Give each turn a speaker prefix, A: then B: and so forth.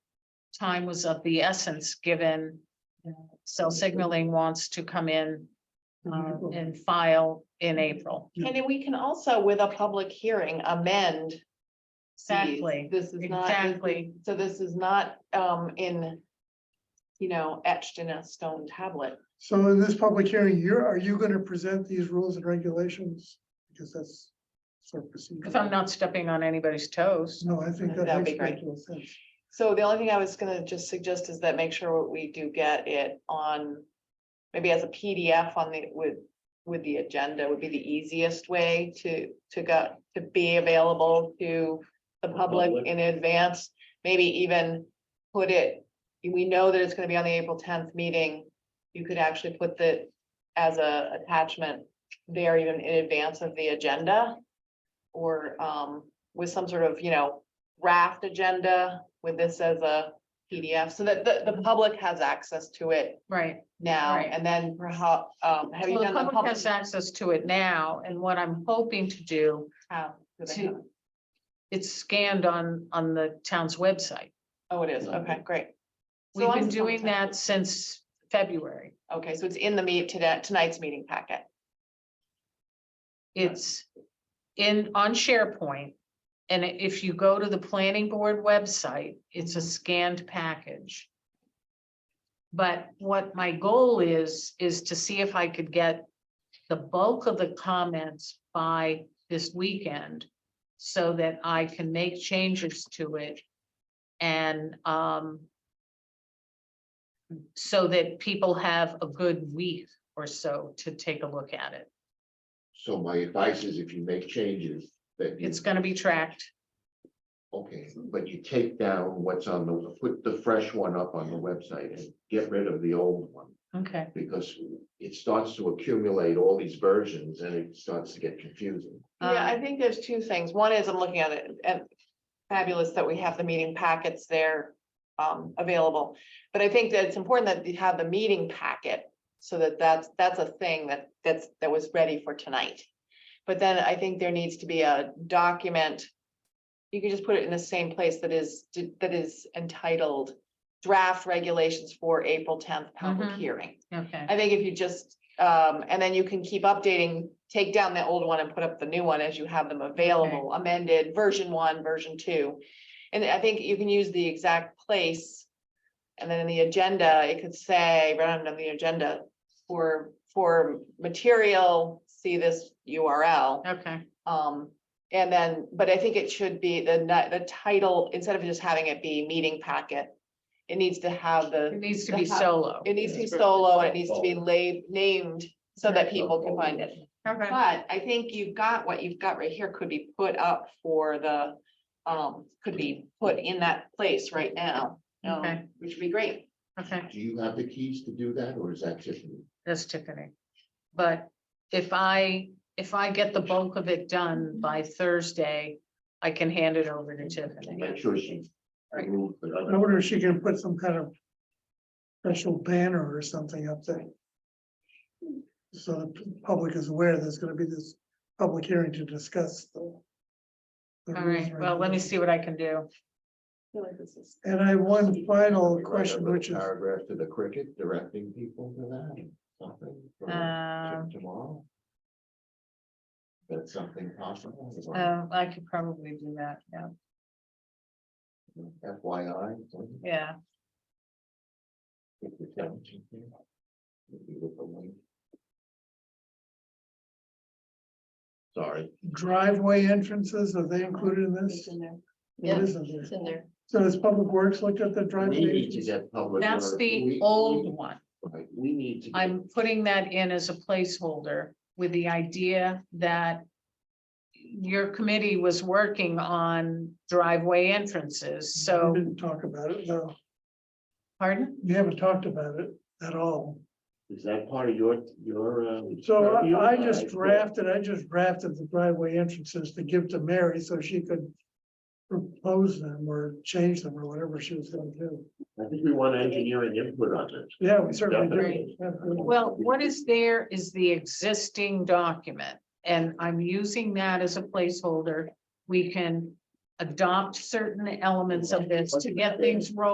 A: time was of the essence, given uh, cell signaling wants to come in uh, and file in April.
B: And then we can also, with a public hearing, amend. these.
A: Exactly,
B: This is not.
A: exactly.
B: So this is not um in, you know, etched in a stone tablet.
C: So in this public hearing, you're, are you gonna present these rules and regulations? Because that's sort of procedure.
A: If I'm not stepping on anybody's toes.
C: No, I think that
B: That'd be
C: makes
B: great.
C: total sense.
B: So the only thing I was gonna just suggest is that make sure we do get it on, maybe as a PDF on the, with, with the agenda would be the easiest way to, to go, to be available to the public
D: Public.
B: in advance, maybe even put it, we know that it's gonna be on the April tenth meeting, you could actually put the, as a attachment there even in advance of the agenda or um with some sort of, you know, draft agenda with this as a PDF so that the, the public has access to it
A: Right.
B: now
A: Right.
B: and then perhaps, um, have you
A: Well,
B: done
A: the
B: the
A: public
B: public?
A: has access to it now, and what I'm hoping to do,
B: how do they
A: to-
B: have it?
A: it's scanned on, on the town's website.
B: Oh, it is. Okay, great. So
A: We've
B: long
A: been
B: as it's on
A: doing
B: the town-
A: that since February.
B: Okay, so it's in the meet today, tonight's meeting packet.
A: It's in, on SharePoint. And if you go to the planning board website, it's a scanned package. But what my goal is, is to see if I could get the bulk of the comments by this weekend. So that I can make changes to it. And, um. So that people have a good week or so to take a look at it.
D: So my advice is if you make changes, that you,
A: It's gonna be tracked.
D: okay, but you take down what's on the, put the fresh one up on the website and get rid of the old one.
A: Okay,
D: Because it starts to accumulate all these versions and it starts to get confusing.
B: Yeah, I
A: Um,
B: think there's two things. One is I'm looking at it and fabulous that we have the meeting packets there um available. But I think that it's important that you have the meeting packet so that that's that's a thing that that's that was ready for tonight. But then I think there needs to be a document. You could just put it in the same place that is that is entitled draft regulations for April tenth public
A: Mhm.
B: hearing.
A: okay,
B: I think if you just, um, and then you can keep updating, take down the old one and put up the new one as you have them available, amended, version one, version two. And I think you can use the exact place. And then in the agenda, it could say, right under the agenda, for, for material, see this URL.
A: okay,
B: Um, and then, but I think it should be the, ni- the title, instead of just having it be meeting packet. It needs to have
D: Uh,
B: the.
A: it needs to
B: The
A: be
B: house-
A: solo.
B: It needs to be
D: Yeah.
B: solo and it needs to be la- named so that people can find it.
A: Okay.
B: But I think you've got, what you've got right here could be put up for the, um, could be put in that place right now. um,
A: Okay.
B: Which would be great.
A: Okay,
D: Do you have the keys to do that or is that just?
A: that's Tiffany. But if I, if I get the bulk of it done by Thursday, I can hand it over to
D: Make
A: Tiffany.
D: sure she.
A: Right.
D: removed the
C: I
D: other-
C: wonder if she can put some kind of special banner or something up there. So the p- public is aware there's gonna be this public hearing to discuss the. the
A: All
C: rules
A: right,
C: and
A: well, let me
C: regulations.
A: see what I can do.
B: I feel like this is-
C: And I have one
D: We
C: final
D: write a
C: question,
D: little
C: which is,
D: Paragraph to the cricket directing people to that, something. for
B: Uh,
A: Um,
D: t- Tomorrow. That's something possible. is that
A: uh, I could probably do that, yeah,
D: FYI. something?
A: yeah,
D: If you tell them something, if you look away. Sorry,
C: driveway entrances, are they included in
B: It's
C: this?
B: in there.
C: It
A: Yeah,
C: isn't there.
B: It's in there.
C: So has Public Works looked at the driveway?
D: we need to
C: entrances?
D: get public.
A: that's
D: notice.
A: the
D: We-
A: old
D: we-
A: one.
D: right, We need to. get-
A: I'm putting that in as a placeholder with the idea that your committee was working on driveway entrances,
C: We
A: so,
C: Didn't talk about it, though.
A: pardon?
C: We haven't talked about it at all.
D: Is that part of your, your? uh,
C: So
D: purview?
C: I I just
D: Uh,
C: drafted, I just drafted the driveway entrances to give to Mary so she could propose them or change them or whatever she was gonna do.
D: I think we want engineering input on this.
C: Yeah, we certainly
D: Definitely.
C: do. Definitely.
A: Well, what is there is the existing document, and I'm using that as a placeholder. We can adopt certain elements of this to get things rolling.